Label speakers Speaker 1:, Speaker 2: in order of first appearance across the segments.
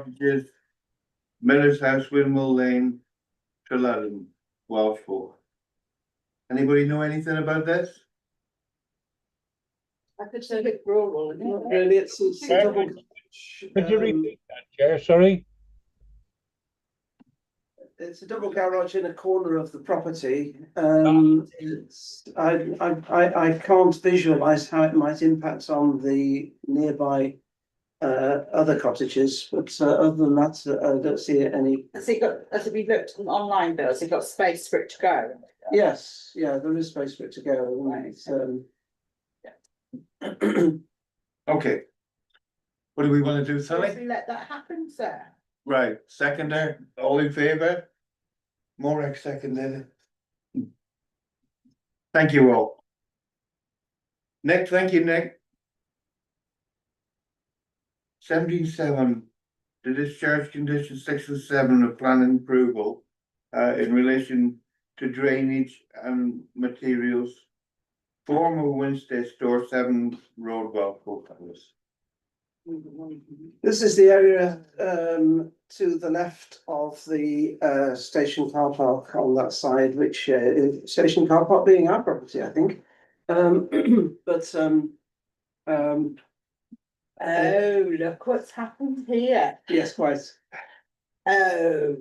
Speaker 1: Sausages, Miller's House, Windmill Lane, Trelawney, Welsh Fork. Anybody know anything about this?
Speaker 2: I could say it rural, it's not really, it's. it's a double-
Speaker 3: Could you
Speaker 2: um,
Speaker 3: repeat that, Chair? Sorry?
Speaker 2: It's a double garage in a corner of the property, um, it's, I, I, I, I can't visualize how it might impact on the nearby. Uh, other cottages, but uh, other than that, uh, I don't see any,
Speaker 4: Has it got, has it been looked on online bills, it got space for it to go?
Speaker 2: yes, yeah, there is space for it to go, right, um.
Speaker 1: Okay. What do we wanna do,
Speaker 4: Should
Speaker 1: Sally?
Speaker 4: we let that happen, sir?
Speaker 1: Right, seconder, all in favor? Morag seconded. Thank you all. Nick, thank you, Nick. Seventeen-seven, to discharge condition six and seven of planning approval, uh, in relation to drainage and materials. Former Wednesday store, seven Roadwell, Hope
Speaker 4: Oh,
Speaker 2: This is the area um to the left of the uh station car park on that side, which uh, is station car park being our property, I think. Um, but um, um,
Speaker 4: Oh, look what's happened here.
Speaker 2: yes, quite.
Speaker 4: Oh,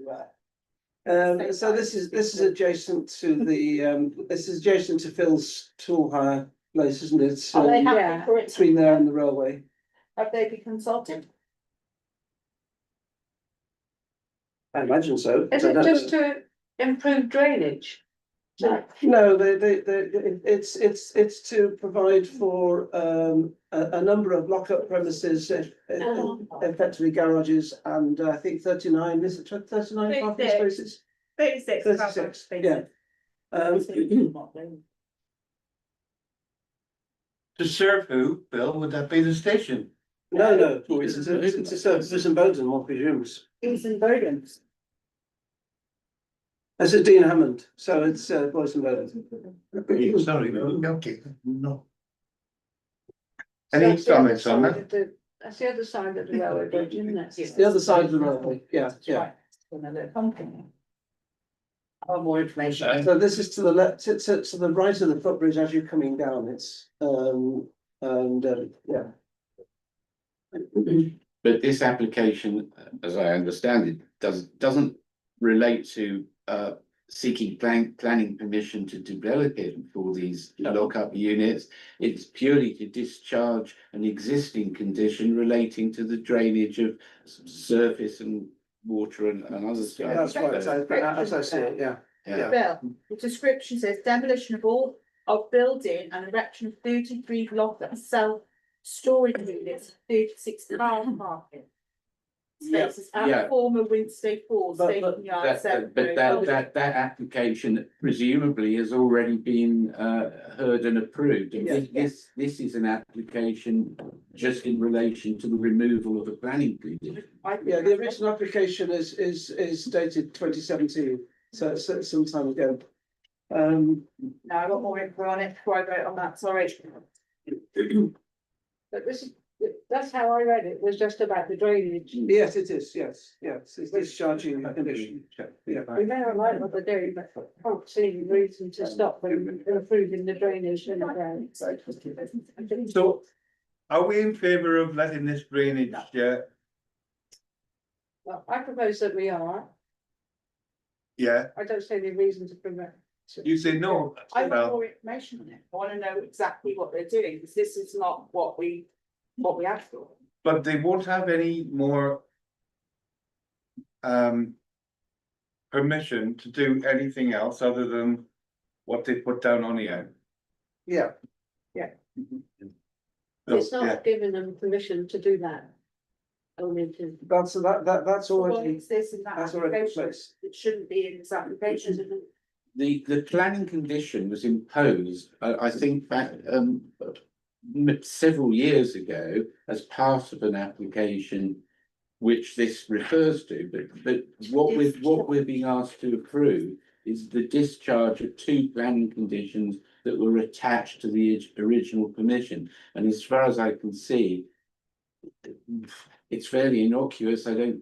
Speaker 2: Um, so this is, this is adjacent to the, um, this is adjacent to Phil's tool hire place, isn't it?
Speaker 5: Oh,
Speaker 4: are they
Speaker 2: Um,
Speaker 4: happy Oh, Yeah. for it? to-
Speaker 2: Between there and the railway.
Speaker 4: Have they been consulted?
Speaker 2: I imagine so.
Speaker 5: Is
Speaker 2: I
Speaker 5: it
Speaker 2: don't know.
Speaker 5: just to improve drainage?
Speaker 4: No.
Speaker 2: No, they, they, they, it's, it's, it's to provide for, um, a, a number of lockup premises. eh, eh,
Speaker 5: Uh-huh.
Speaker 4: um,
Speaker 2: Effectively garages and uh, I think thirty-nine, is it tw- thirty-nine parking
Speaker 5: Thirty-six.
Speaker 2: spaces?
Speaker 5: Thirty-six.
Speaker 2: Thirty-six, yeah. Um,
Speaker 1: To serve who, Bill, would that be the station?
Speaker 2: no, no, it's, it's, a- it's uh, a service in Bowden, one presumes.
Speaker 4: It's in Bowden.
Speaker 2: This is Dean Hammond, so it's, uh, Boys and Bowden.
Speaker 1: Sorry, no, okay, no. Any comments on that?
Speaker 5: That's the other side of the railway bridge, isn't it?
Speaker 4: Yes.
Speaker 2: The other side of the railway, yeah,
Speaker 4: That's
Speaker 2: yeah.
Speaker 4: right. Another company. Oh, more information.
Speaker 2: So this is to the left, to, to, to the right of the footbridge as you're coming down, it's, um, and, uh, yeah.
Speaker 6: But this application, uh, as I understand it, does, doesn't relate to uh seeking plan, planning permission to develop it for these lockup units. It's purely to discharge an existing condition relating to the drainage of s- surface and water and and other stuff.
Speaker 2: That's right, as I, as I see it, yeah.
Speaker 6: Yeah,
Speaker 4: Bill, the description says demolition of all of building and erection of thirty-three block that sell storage units, thirty-six car parking. Spaces
Speaker 6: Yeah.
Speaker 4: at former Wednesday Falls
Speaker 2: But-
Speaker 4: Station
Speaker 2: but
Speaker 4: Yard.
Speaker 6: That-
Speaker 4: Seven Oh,
Speaker 6: that- but that,
Speaker 4: Road.
Speaker 6: that, that application presumably has already been uh heard and approved. And this,
Speaker 4: Yeah.
Speaker 6: this, this is an application just in relation to the removal of a planning condition.
Speaker 4: I think
Speaker 2: Yeah, the
Speaker 4: that's-
Speaker 2: original application is, is, is dated twenty seventeen, so it's it's some time ago. Um,
Speaker 4: No, I got more info on it before I vote on that, sorry.
Speaker 5: But this, is- that's how I read it, was just about the drainage.
Speaker 2: yes, it is, yes, yes, it's discharging a condition. Yeah.
Speaker 5: We may not like what they're doing, but I can't see any reason to stop them improving the drainage in the ground.
Speaker 1: So are we in favor of letting this drainage, yeah,
Speaker 5: Well, I propose that we are.
Speaker 1: yeah,
Speaker 5: I don't see any reason to prevent.
Speaker 1: you say no?
Speaker 4: I want
Speaker 1: well,
Speaker 4: more information on it, I wanna know exactly what they're doing, because this is not what we, what we asked for.
Speaker 1: But they won't have any more. Um. Permission to do anything else other than what they put down on here.
Speaker 2: Yeah,
Speaker 1: So,
Speaker 5: It's
Speaker 1: Oh, yeah.
Speaker 5: not giving them permission to do that. Only to,
Speaker 2: that's, that, that, that's
Speaker 4: What
Speaker 2: already,
Speaker 4: exists in that
Speaker 2: that's already in
Speaker 4: application,
Speaker 2: place.
Speaker 4: it shouldn't be in this application, isn't it?
Speaker 6: The, the planning condition was imposed, I, I think back, um, m- several years ago as part of an application which this refers to, but, but what we're, what we're being asked to approve is the discharge of two planning conditions that were attached to the orig- original permission. And as far as I can see, It's fairly innocuous. I don't